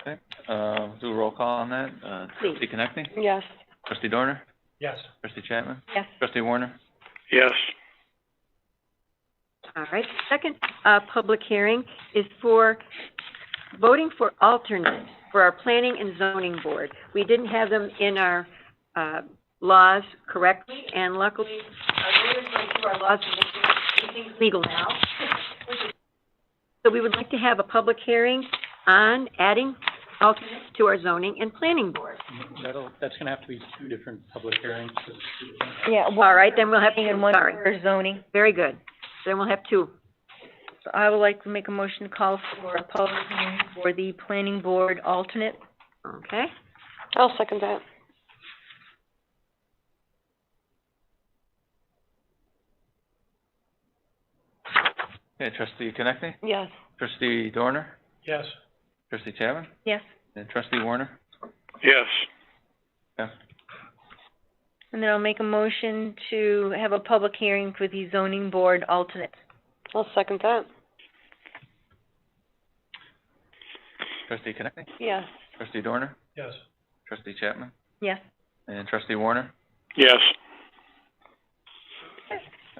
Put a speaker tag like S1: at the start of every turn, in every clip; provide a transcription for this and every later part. S1: Okay, uh, do a roll call on that. Uh,
S2: Please.
S1: trustee Connectney?
S2: Yes.
S1: Trustee Dorner?
S3: Yes.
S1: Trustee Chapman?
S2: Yes.
S1: Trustee Warner?
S3: Yes.
S2: All right, second, uh, public hearing is for voting for alternates for our planning and zoning board. We didn't have them in our, uh, laws correctly, and luckily, our lawyers went through our laws and making everything legal now. So we would like to have a public hearing on adding alternates to our zoning and planning board.
S3: That'll, that's gonna have to be two different public hearings. 'cause we can't have-
S4: Yeah,
S2: All right, then we'll have,
S4: planning and
S2: two.
S4: one
S2: sorry,
S4: for zoning.
S2: very good. Then we'll have two.
S4: So I would like to make a motion to call for a public hearing for the planning board alternate.
S2: Okay,
S5: I'll second that.
S1: Okay, trustee Connectney?
S5: Yes.
S1: Trustee Dorner?
S3: Yes.
S1: Trustee Chapman?
S4: Yes.
S1: And trustee Warner?
S3: Yes.
S1: Yeah,
S4: And then I'll make a motion to have a public hearing for the zoning board alternate.
S5: I'll second that.
S1: trustee Connectney?
S5: Yes.
S1: Trustee Dorner?
S3: Yes.
S1: Trustee Chapman?
S4: Yes.
S1: And trustee Warner?
S3: Yes.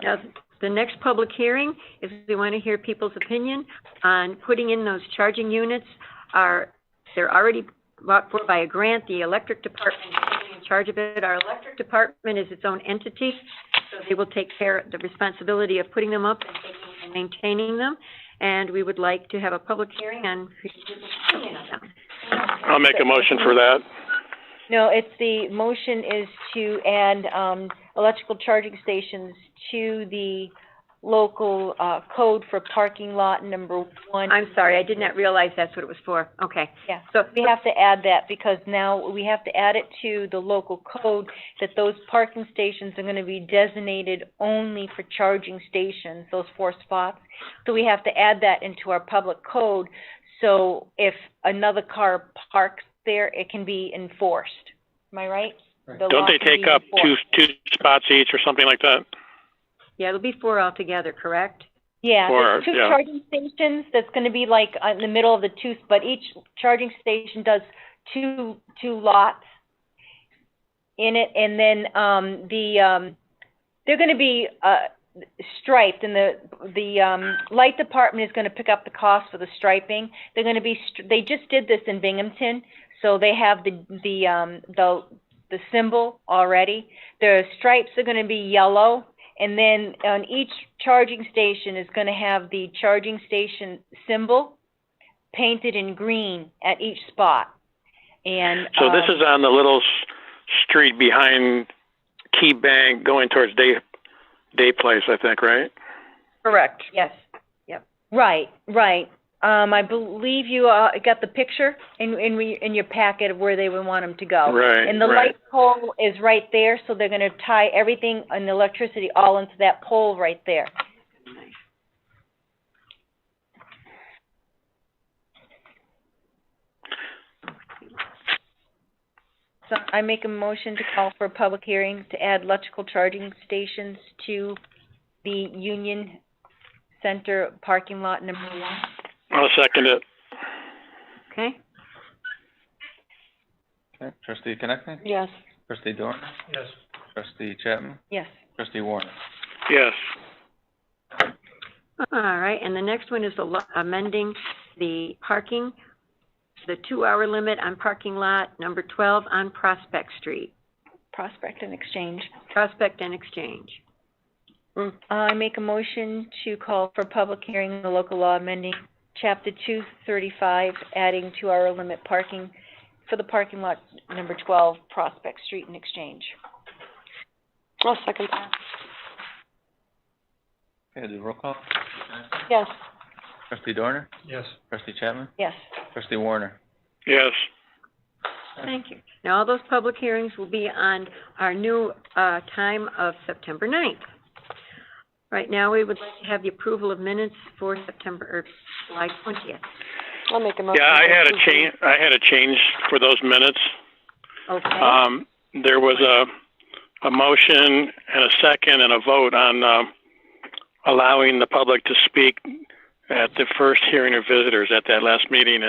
S2: now, the next public hearing is we want to hear people's opinion on putting in those charging units. Are, they're already bought for by a grant, the electric department is taking in charge of it. Our electric department is its own entity, so they will take care, the responsibility of putting them up and taking and maintaining them. And we would like to have a public hearing on people's opinion on them.
S6: I'll make a motion for that.
S4: No, it's the motion is to add, um, electrical charging stations to the local, uh, code for parking lot number one.
S2: I'm sorry, I did not realize that's what it was for. Okay.
S4: Yeah.
S2: So,
S4: We have to add that because now we have to add it to the local code that those parking stations are gonna be designated only for charging stations, those four spots. So we have to add that into our public code, so if another car parks there, it can be enforced. Am I right?
S3: Right.
S4: The law
S6: Don't they
S4: can
S6: take
S4: be
S6: up two,
S4: enforced.
S6: two spots each or something like that?
S2: yeah, it'll be four altogether, correct?
S4: Yeah,
S6: Or,
S4: there's two
S6: yeah.
S4: charging stations, that's gonna be like uh, in the middle of the two, but each charging station does two, two lots in it, and then, um, the, um, they're gonna be, uh, striped, and the, the, um, light department is gonna pick up the cost for the striping. They're gonna be, str- they just did this in Binghamton, so they have the, the, um, the, the symbol already. The stripes are gonna be yellow, and then on each charging station is gonna have the charging station symbol painted in green at each spot. And,
S6: So this
S5: Uh,
S4: um,
S6: is on the little s- street behind Key Bank going towards Day, Day Place, I think, right?
S2: Correct. Yes.
S4: Right, right. Um, I believe you, uh, got the picture in, in, re- in your packet of where they would want them to
S5: Oh,
S4: go.
S6: Right,
S4: And the
S6: right.
S4: light pole is right there, so they're gonna tie everything and the electricity all into that pole right there. So I make a motion to call for a public hearing to add electrical charging stations to the Union Center parking lot number one.
S6: I'll second it.
S2: Okay.
S1: Okay, trustee Connectney?
S5: Yes.
S1: Trustee Dorner?
S3: Yes.
S1: Trustee Chapman?
S4: Yes.
S1: Trustee Warner?
S6: Yes.
S2: All right, and the next one is the lo- amending the parking, the two-hour limit on parking lot number 12 on Prospect Street,
S4: Prospect and Exchange.
S2: Prospect and Exchange. Mm,
S4: Uh, I make a motion to call for public hearing on the local law amending chapter two thirty-five, adding two-hour limit parking for the parking lot number twelve, Prospect Street and Exchange.
S5: I'll second that.
S1: Okay, do a roll call?
S5: Yes.
S1: Trustee Dorner?
S3: Yes.
S1: Trustee Chapman?
S4: Yes.
S1: Trustee Warner?
S6: Yes.
S2: Thank you. Now, all those public hearings will be on our new, uh, time of September 9th. Right now, we would like to have the approval of minutes for September, or July 20th.
S5: I'll make a motion.
S6: Yeah, I had a
S5: to approve
S6: change, I had a change for those minutes.
S2: Okay?
S6: Um, there was a, a motion and a second and a vote on, um, allowing the public to speak at the first hearing of visitors at that last meeting